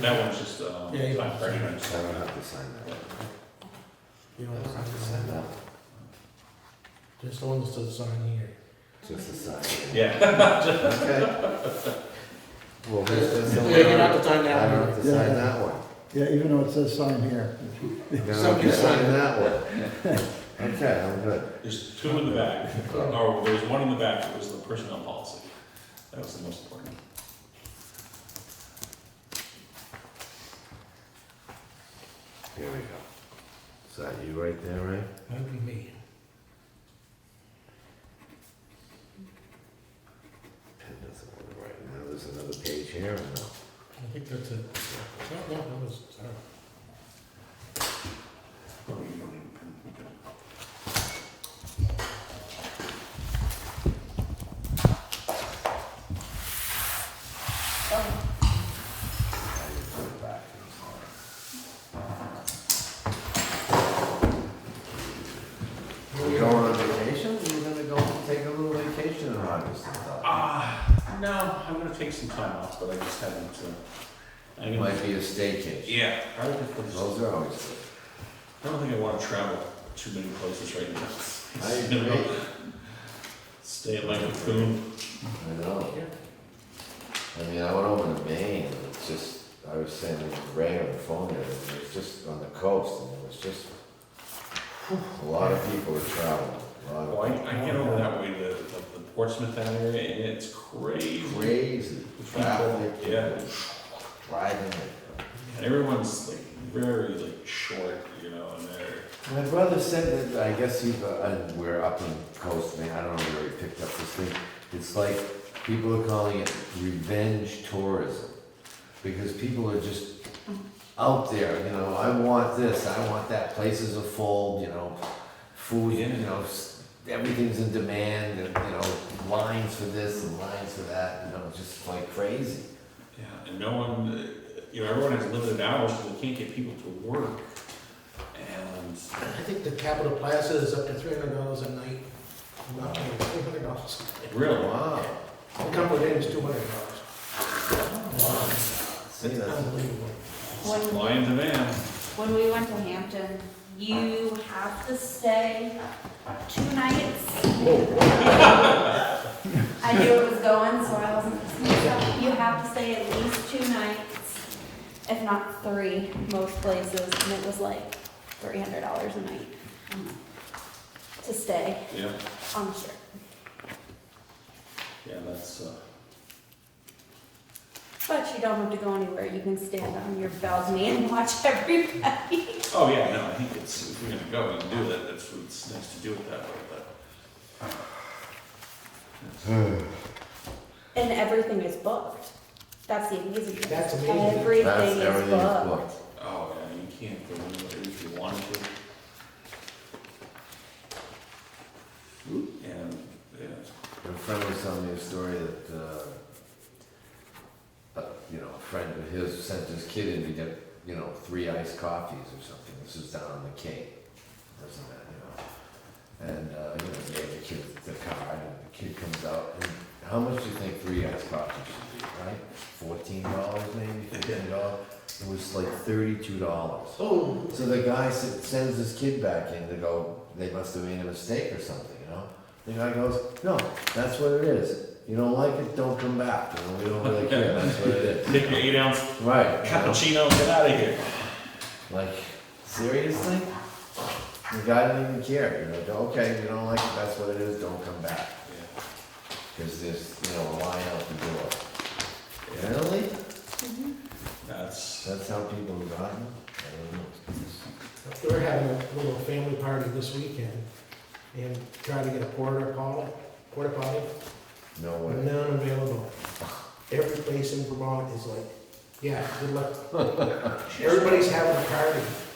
That one's just, um, Yeah, you- time pressure. I don't have to sign that. I You don't don't have have to to sign sign that. that. Just the one that says sign here. Just a sign. Yeah, Okay. Well, this is the Yeah, one. you don't have to I sign that don't one. have to Yeah. sign that one. Yeah, even though it says sign here. You don't have Somebody to sign sign it. that one. Okay, I'm good. there's two in the back, or there's one in the back, it was the personnel policy. That was the most important. Here we go. Is that you right there, Ray? That would be me. Pen doesn't want to write. Now there's another page here and now. I think that's it. No, no, that was, sorry. We going on vacation? We're gonna go take a little vacation in August and stuff. Ah, no, I'm gonna take some time off, but I just haven't, uh, I It know, might be a staycation. yeah, I don't think I was- Those are always good. I don't think I wanna travel too many places right now. I You know, agree. Stay at Lake Coon, I know. I mean, I went over to Maine, and it's just, I was saying to Ray on the phone, there, and it was just on the coast, and it was just, a lot of people were traveling, a well, I, lot I get over that way to, to the Portsmouth that area, and it's crazy. of crazy The people, traffic. Yeah, Driving. and everyone's like very like short, you know, and they're, My brother said that, I guess you've, uh, and we're up in coast, Maine, I don't know where he picked up this thing, it's like, people are calling it revenge tourism, because people are just out there, you know, I want this, I want that, places are full, you know, food, you know, s- everything's in demand, and, you know, lines for this and lines for that, you know, just like crazy. Yeah, and no one, uh, you know, everyone has limited hours, so they can't get people to work. And I think the Capitol Plaza is up to three hundred dollars a night. I'm not kidding, three hundred dollars. really, Wow, A couple of days, two hundred dollars. see, that's, Unbelievable. When, supply and demand. when we went to Hampton, you have to stay two nights. I knew it was going, so I wasn't, you have to stay at least two nights, if not three, most places, and it was like three hundred dollars a night um, to stay Yeah, on the ship. yeah, that's, uh, But you don't have to go anywhere, you can stand on your balcony and watch everybody. oh, yeah, no, I think it's, if you're gonna go and do that, that's, it's nice to do it that way, but. And everything is booked. That's the amazing thing. That's amazing. Everything that's, is everything's booked. booked. Oh, yeah, you can't go anywhere if you want to. And, yeah, A friend was telling me a story that, uh, uh, you know, a friend of his sent his kid in to get, you know, three iced coffees or something. This was down on the Cape, doesn't that, you know? And, uh, you know, he gave the kid the card, and the kid comes out, and how much do you think three iced coffees should be, right? Fourteen dollars maybe, fifteen dollars? It was like thirty-two dollars. Oh, So the guy s- sends his kid back in to go, they must have made a mistake or something, you know? The guy goes, no, that's what it is. You don't like it, don't come back. You know, we don't really care, that's what it is. take your eight ounce Right. you know? cappuccino, and get out of here. Like, seriously? The guy didn't even care, you know, okay, you don't like it, that's what it is, don't come back. Yeah, Because there's, you know, a line out the door. Really? Mm-hmm. That's, That's how people have gotten? I don't know. We're having a little family party this weekend and trying to get a porta potty, porta potty, No way. none available. Every place in Vermont is like, yeah, good luck. Everybody's having a party.